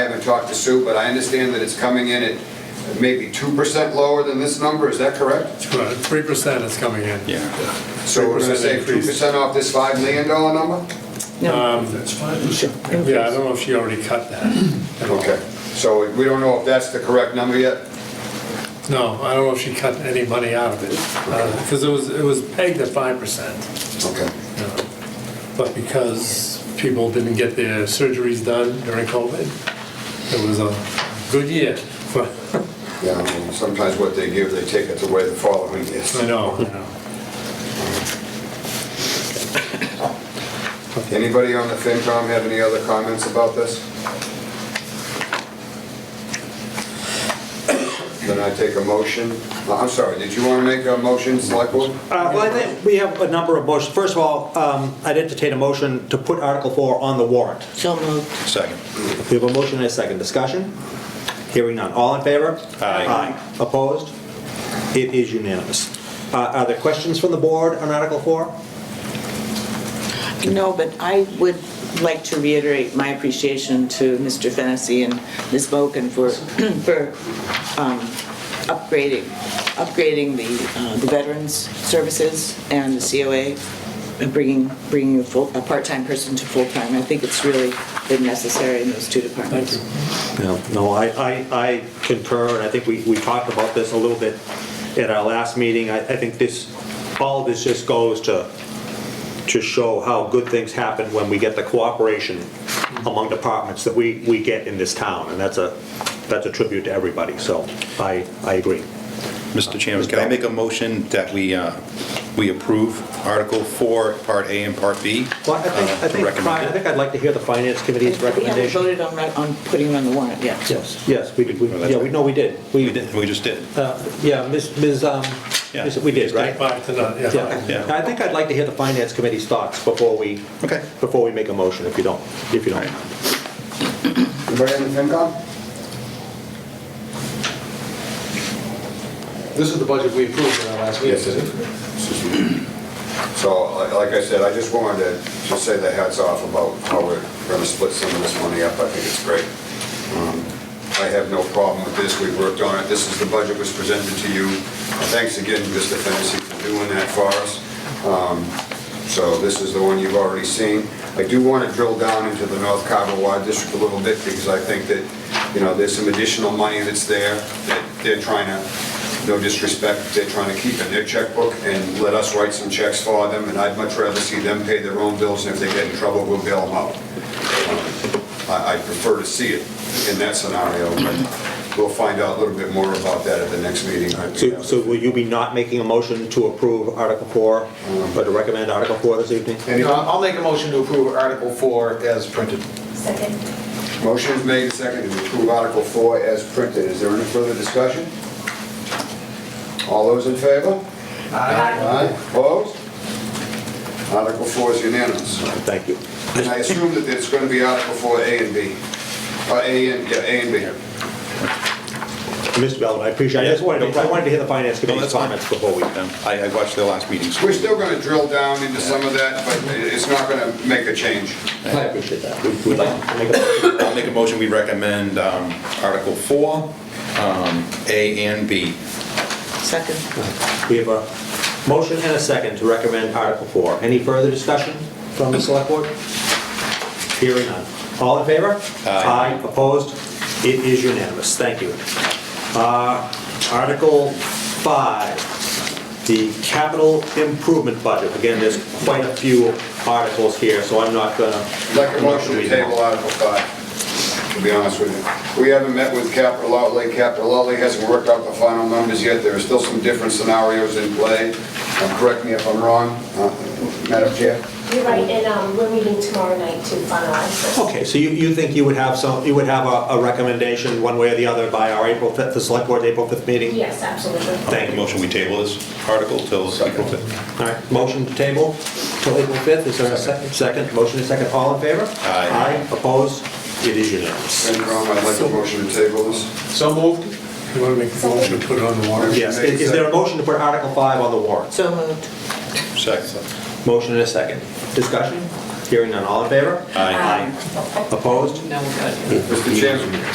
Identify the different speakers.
Speaker 1: haven't talked to Sue, but I understand that it's coming in at maybe 2% lower than this number, is that correct?
Speaker 2: Three percent is coming in.
Speaker 3: Yeah.
Speaker 1: So we're gonna
Speaker 2: 3%
Speaker 1: save
Speaker 2: increase.
Speaker 1: 2% off this $5 million number?
Speaker 4: That's fine.
Speaker 2: Yeah, I don't know if she already cut that. at all.
Speaker 1: Okay, so we don't know if that's the correct number yet?
Speaker 2: No, I don't know if she cut any money out of it, because it was, it was pegged at five percent.
Speaker 1: Okay,
Speaker 2: But because people didn't get their surgeries done during COVID, it was a good year. for-
Speaker 1: yeah, I mean, sometimes what they give, they take it away the following year.
Speaker 2: I know, I know.
Speaker 1: Anybody on the FinCom have any other comments about this? Then I take a motion. Uh, I'm sorry, did you want to make a motion, Select Board?
Speaker 5: Uh, Well, I think we have a number of motions. First of all, um, I'd entertain a motion to put Article 4 on the warrant.
Speaker 6: So moved.
Speaker 3: Second.
Speaker 5: We have a motion and a second discussion. Hearing none. All in favor?
Speaker 3: Aye.
Speaker 5: Opposed? It is unanimous. Uh, Are there questions from the board on Article 4?
Speaker 6: No, but I would like to reiterate my appreciation to Mr. Fennessy and Ms. Bogan for, for um, upgrading, upgrading the uh, the Veterans Services and the COA, and bringing, bringing a full, a part-time person to full-time. I think it's really been necessary in those two departments.
Speaker 5: No, no, I, I, I concur, and I think we, we talked about this a little bit at our last meeting. I, I think this, all this just goes to, to show how good things happen when we get the cooperation among departments that we, we get in this town, and that's a, that's a tribute to everybody, so I, I agree.
Speaker 3: Mr. Chairman, can I make a motion that we, uh, we approve Article 4, Part A and Part B?
Speaker 5: Well, I think,
Speaker 3: uh,
Speaker 5: I think,
Speaker 3: recommended?
Speaker 5: I think I'd like to hear the finance
Speaker 6: We
Speaker 5: committee's
Speaker 6: haven't
Speaker 5: recommendation.
Speaker 6: voted on, on putting it on the warrant yet.
Speaker 5: Yes, yes, we did, we- yeah, we, no, we did.
Speaker 3: We did, we just did.
Speaker 5: Uh, Yeah, Ms., Ms., um,
Speaker 3: Yeah.
Speaker 5: Ms. we did, right?
Speaker 2: Five to none, yeah.
Speaker 5: Yeah,
Speaker 3: Yeah.
Speaker 5: I think I'd like to hear the finance committee's thoughts before we,
Speaker 3: Okay.
Speaker 5: before we make a motion, if you don't, if you don't.
Speaker 3: All right.
Speaker 1: Anybody on the FinCom?
Speaker 4: This is the budget we approved in our last meeting.
Speaker 1: it is. So, li- like I said, I just wanted to just say the hats off about how we're gonna split some of this money up. I think it's great. Um, I have no problem with this. We've worked on it. This is the budget was presented to you. Thanks again, Mr. Fennessy, for doing that for us. Um, So this is the one you've already seen. I do want to drill down into the North Carver Water District a little bit because I think that, you know, there's some additional money that's there that they're trying to, no disrespect, they're trying to keep in their checkbook and let us write some checks for them. And I'd much rather see them pay their own bills and if they get in trouble, we'll bail them out. Um, I I prefer to see it in that scenario, but we'll find out a little bit more about that at the next meeting.
Speaker 5: So, so will you be not making a motion to approve Article 4, or to recommend Article 4 this evening?
Speaker 4: You know, I'll make a motion to approve Article 4 as printed.
Speaker 7: Second.
Speaker 1: Motion is made and seconded to approve Article 4 as printed. Is there any further discussion? All those in favor? Aye. Opposed? Article 4 is unanimous.
Speaker 5: Thank you.
Speaker 1: And I assume that it's going to be Article 4, A and B. Uh, A and, yeah, A and B.
Speaker 5: Mr. Belvin, I appreciate, I just wanted, to- I wanted to hear the finance committee's
Speaker 3: that's fine.
Speaker 5: comments before we.
Speaker 3: Um, I, I watched the last meeting. so-
Speaker 1: We're still going to drill down into some of that, but it's not going to make a change.
Speaker 5: I appreciate that. We'd we'd like to make a motion.
Speaker 3: I'll make a motion, we recommend um, Article 4, um, A and B.
Speaker 6: Second.
Speaker 5: We have a motion and a second to recommend Article 4. Any further discussion from the select board? Hearing none. All in favor?
Speaker 3: Aye.
Speaker 5: Opposed? It is unanimous. Thank you. Uh, Article 5, the capital improvement budget. Again, there's quite a few articles here, so I'm not gonna...
Speaker 1: Like a motion to table Article 5, to be honest with you. We haven't met with capital outlay, capital outlay hasn't worked out the final numbers yet, there are still some different scenarios in play. Uh, Correct me if I'm wrong, uh, Madam Chair?
Speaker 7: You're right, and um, we're meeting tomorrow night to finalize this.
Speaker 5: Okay, so you, you think you would have some, you would have a a recommendation one way or the other by our April 5th, the select board April 5th meeting?
Speaker 7: Yes, absolutely.
Speaker 5: Thank
Speaker 3: Make a
Speaker 5: you.
Speaker 3: motion, we table this article till April 5th.
Speaker 5: All right, motion to table till April 5th, is there a second? Second, motion is second, all in favor?
Speaker 3: Aye.
Speaker 5: Aye, opposed? It is unanimous.
Speaker 1: Senator Brown, I'd like a motion to table this.
Speaker 4: So moved?
Speaker 2: You want to make a motion to put it on the warrant?
Speaker 5: Yes, is is there a motion to put Article 5 on the warrant?
Speaker 6: So moved.
Speaker 3: Second.
Speaker 5: Motion and a second. Discussion? Hearing none, all in favor?
Speaker 3: Aye.
Speaker 5: Opposed?
Speaker 6: No, good.
Speaker 1: Mr. Chairman?